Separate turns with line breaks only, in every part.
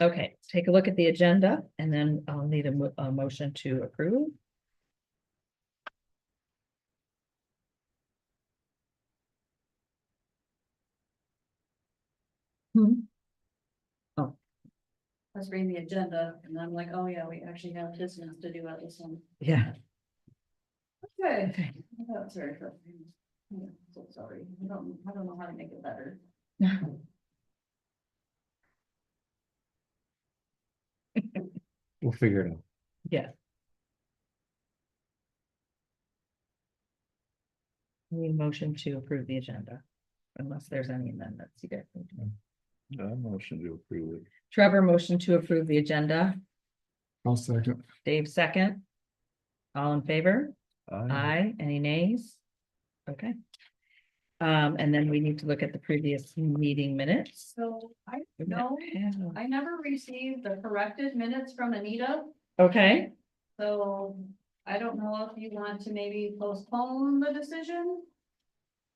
Okay, take a look at the agenda and then I'll need a mo- a motion to approve. Hmm, Oh.
I was reading the agenda and I'm like, oh yeah, we actually have business to do at this one.
yeah,
Okay.
okay.
That's very frustrating. Yeah, so Sorry, I don't, I don't know how to make it better.
We'll figure it out.
Yeah. Need a motion to approve the agenda, unless there's any amendments you guys need to make.
I motion to approve it.
Trevor, motion to approve the agenda.
I'll second.
Dave, second. All in favor? Aye. Any nays? Okay. Um, and then we need to look at the previous meeting minutes.
So I,
We
no,
have-
I never received the corrected minutes from Anita,
Okay,
so I don't know if you want to maybe postpone the decision.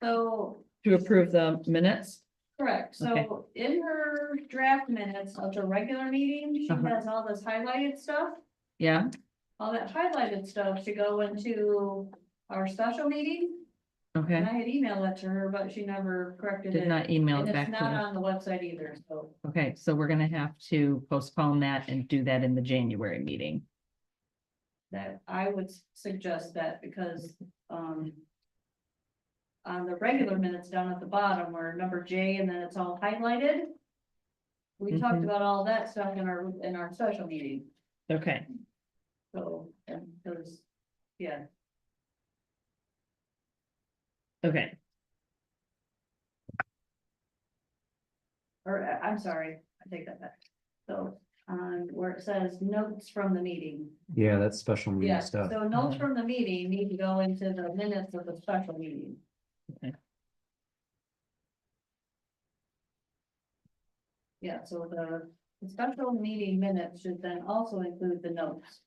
So
to approve the minutes.
Correct, so in her draft minutes of the regular meeting, she
Uh-huh.
has all this highlighted stuff.
Yeah,
All that highlighted stuff should go into our special meeting, and
okay.
I had emailed that to her, but she never corrected it.
Did not email
And
it
it's
back
not
to
on the website either, so,
you. Okay, so we're gonna have to postpone that and do that in the January meeting.
that, I would suggest that, because, um. On the regular minutes down at the bottom where number J and then it's all highlighted. We talked
Mhm.
about all that stuff in our, in our special meeting.
Okay,
So, and those, yeah,
okay.
or uh, I'm sorry, I take that back. So, um, where it says notes from the meeting,
Yeah, that's special
yeah,
meeting stuff.
so notes from the meeting need to go into the minutes of the special meeting.
Okay.
Yeah, so the the special meeting minutes should then also include the notes.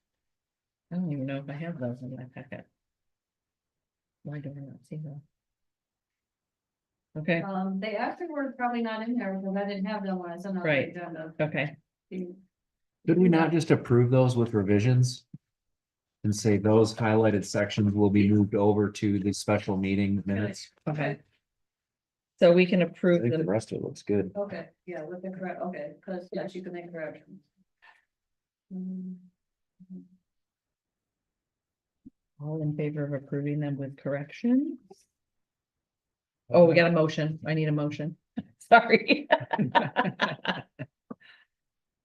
I don't even know if I have those in my packet. Why do I not see them? Okay,
Um, they actually were probably not in there because I didn't have them when I sent out the
Right.
agenda.
okay,
Did we not just approve those with revisions? And say those highlighted sections will be moved over to the special meeting minutes?
okay. So we can
I
approve
think the
the,
rest of it looks good.
Okay, yeah, with the correct, okay, because, yes, you can make corrections. Mm,
all in favor of approving them with corrections? Oh, we got a motion. I need a motion. Sorry.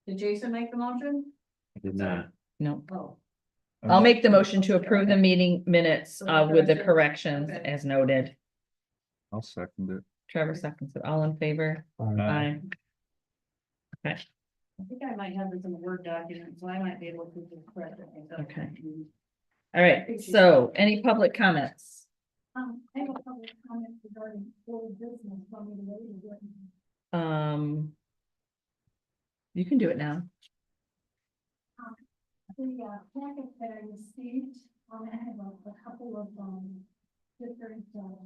Did Jason make the motion?
I Did not.
No,
Oh,
I'll make the motion to approve the meeting minutes
With the
uh with the
corrections.
corrections
Okay.
as noted.
I'll second it.
Trevor seconds it. All in favor? Aye.
I think I might have this in the Word document, so I might be able to just correct it. myself.
Okay. All right, so any public comments?
Um, I have a couple of comments regarding old business from the lady.
Um. You can do it now.
The uh, packet that I received, um, I have a a couple of, um, different, uh,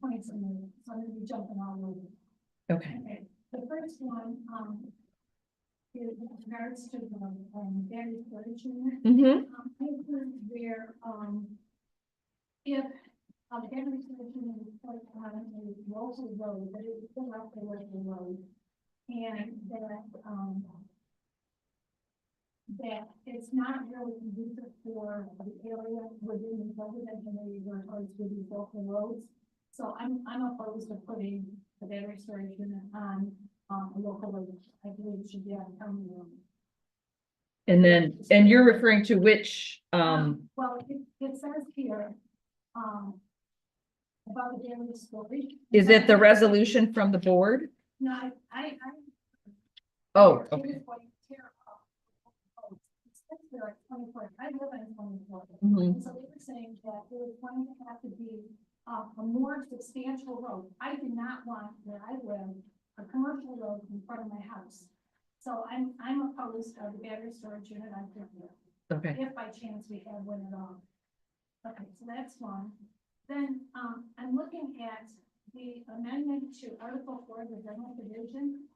points in there, so I'm gonna be jumping all over.
Okay,
Okay, the first one, um. Is with regards to the, um, very furniture.
mm-hmm,
Um, I heard where, um. If, um, every solution is put on a local road, but it's still up the local road. And that, um. That it's not really conducive for the area within the residential area where it's with these local roads. So I'm, I'm opposed to putting the battery storage unit on, um, a local road. I believe it should be on county road.
and then, and you're referring to which, um,
Well, it, it says here, um. About the daily storage.
is it the resolution from the board?
No, I, I. I-
Oh,
I was
okay.
going to tear up. Oh, It says here like twenty-four, I live on twenty-four.
Mhm.
And so they were saying that it was going to have to be, uh, a more substantial road. I do not want where I live, a commercial road in front of my house. So I'm, I'm opposed to the battery storage unit on Fairview
okay,
if by chance we have one at all. Okay, so that's one. Then, um, I'm looking at the amendment to Article Four of the general division.